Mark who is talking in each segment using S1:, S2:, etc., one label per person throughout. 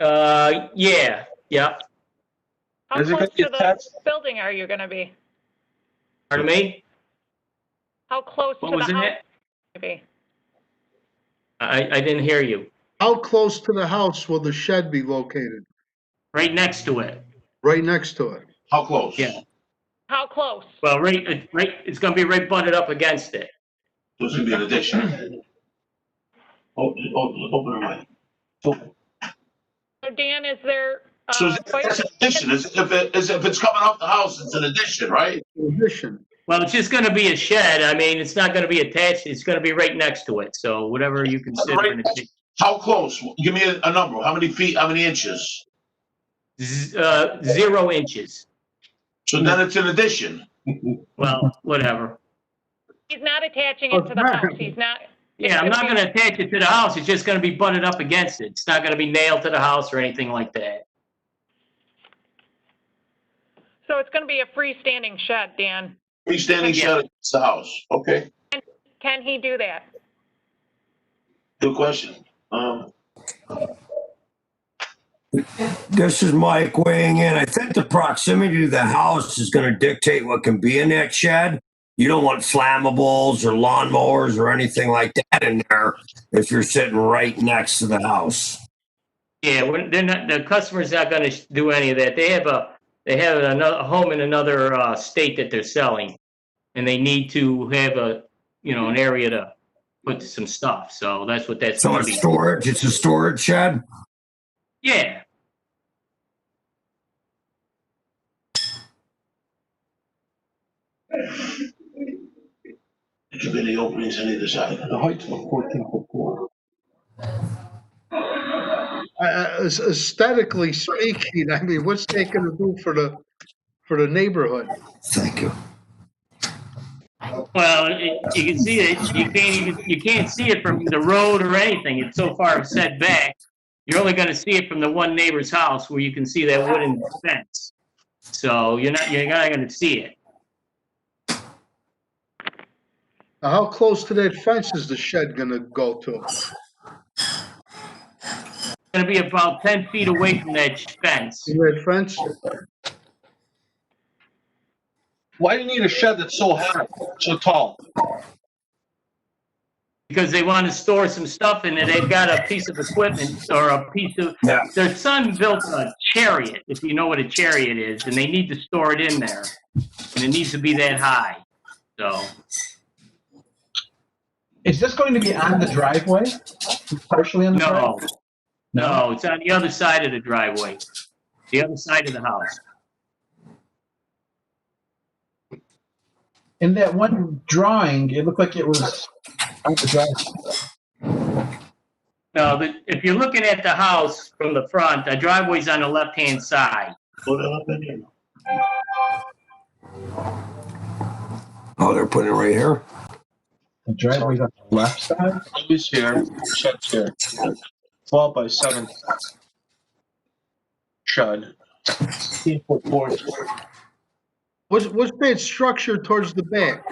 S1: Uh, yeah, yeah.
S2: How
S3: Is it
S2: close
S3: gonna be
S2: to the
S3: attached?
S2: building are you going to be?
S1: Pardon me?
S2: How close to
S1: What was
S2: the
S1: in
S2: house
S1: that?
S2: are you going to be?
S1: I, I didn't hear you.
S4: How close to the house will the shed be located?
S1: Right next to it.
S4: Right next to it?
S5: How close?
S1: Yeah.
S2: How close?
S1: Well, right, uh, right, it's gonna be right butted up against it.
S5: So it's gonna be an addition. Open, open, open the mic. Open.
S2: So Dan, is there? uh,
S5: So it's
S2: fire-
S5: it's an addition, It's- if it, is, if it's coming off the house, it's an addition, right?
S4: Addition,
S1: Well, it's just gonna be a shed. I mean, it's not gonna be attached. It's gonna be right next to it. So whatever you consider. an addition.
S5: How close? Give me a, a number, how many feet, how many inches?
S1: Z- Uh, zero inches.
S5: So then it's an addition.
S1: Well, whatever.
S2: He's not attaching
S3: Oh,
S2: it to the house. He's not.
S1: Yeah, I'm not gonna attach it to the house. It's just gonna be butted up against it. It's not gonna be nailed to the house or anything like that.
S2: So it's going to be a freestanding shed, Dan.
S5: Freestanding shed, it's the house, okay,
S2: Can he do that?
S5: good question. Um,
S6: This is Mike weighing in. I think the proximity to the house is going to dictate what can be in that shed. You don't want flammables or lawnmowers or anything like that in there if you're sitting right next to the house.
S1: Yeah, we're, they're not, the customer's not gonna sh- do any of that. They have a, they have another, a home in another, uh, state that they're selling. And they need to have a, you know, an area to put some stuff, so that's what that's
S6: So
S1: gonna
S6: it's
S1: be.
S6: storage. It's a storage shed.
S1: Yeah,
S5: it could be the openings on either side. The height of fourteen foot four.
S4: Uh, uh, aesthetically speaking, I mean, what's that gonna do for the, for the neighborhood?
S6: Thank you.
S1: well, it- you can see it, you can't even, you can't see it from the road or anything, it's so far set back. You're only gonna see it from the one neighbor's house where you can see that wooden fence. So you're not, you're not gonna see it.
S4: Now, how close to that fence is the shed gonna go to?
S1: It's gonna be about ten feet away from that fence.
S4: See that fence?
S3: Why do you need a shed that's so high, so tall?
S1: because they want to store some stuff in it. They've got a piece of equipment or a piece of
S6: Yeah.
S1: their son built a chariot, if you know what a chariot is, and they need to store it in there. And it needs to be that high. So
S7: Is this going to be on the driveway? Partially on the driveway?
S1: no. No, it's on the other side of the driveway. The other side of the house.
S7: In that one drawing, it looked like it was on the driveway.
S1: No, the, if you're looking at the house from the front, the driveway's on the left hand side.
S5: Put it up in here.
S6: Oh, they're putting it right here.
S7: The driveway's on the left side.
S3: Who's here? Shed's here. Twelve by seven. Shed. Fifteen foot four.
S4: What's, what's that structure towards the back?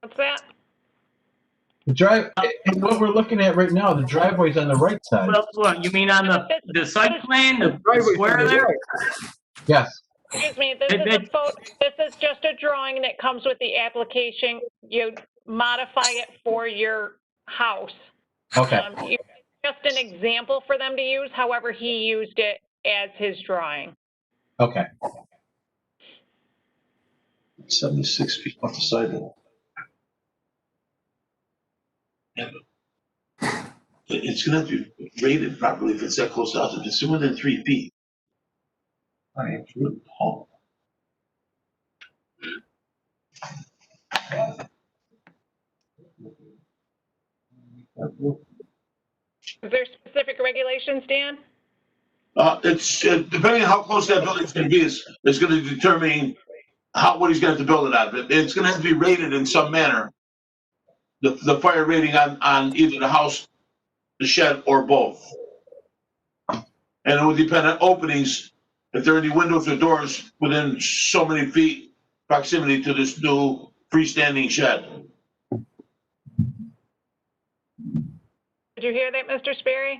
S2: What's that?
S7: The drive, and what we're looking at right now, the driveway's on the right side.
S1: Well, what, you mean on the, the site plan, the
S4: Driveway from
S1: square
S4: the
S1: there?
S4: right.
S7: Yes.
S2: Excuse me, this
S1: That-
S2: is a
S1: that-
S2: photo, this is just a drawing that comes with the application. You modify it for your house.
S7: Okay.
S2: Um, you- Just an example for them to use, however he used it as his drawing.
S7: Okay.
S5: Seventy-six feet off the sidewalk. Yeah, but it- It's gonna have to be rated properly if it's that close out, if it's within three feet. I am sure, oh,
S2: Is there specific regulations, Dan?
S5: Uh, it's, uh, depending on how close that building's gonna be, is, is gonna determine how, what he's gonna have to build it on, but it's gonna have to be rated in some manner. The, the fire rating on, on either the house, the shed, or both. And it would depend on openings, if there are any windows or doors within so many feet proximity to this new freestanding shed.
S2: Did you hear that, Mr. Sperry?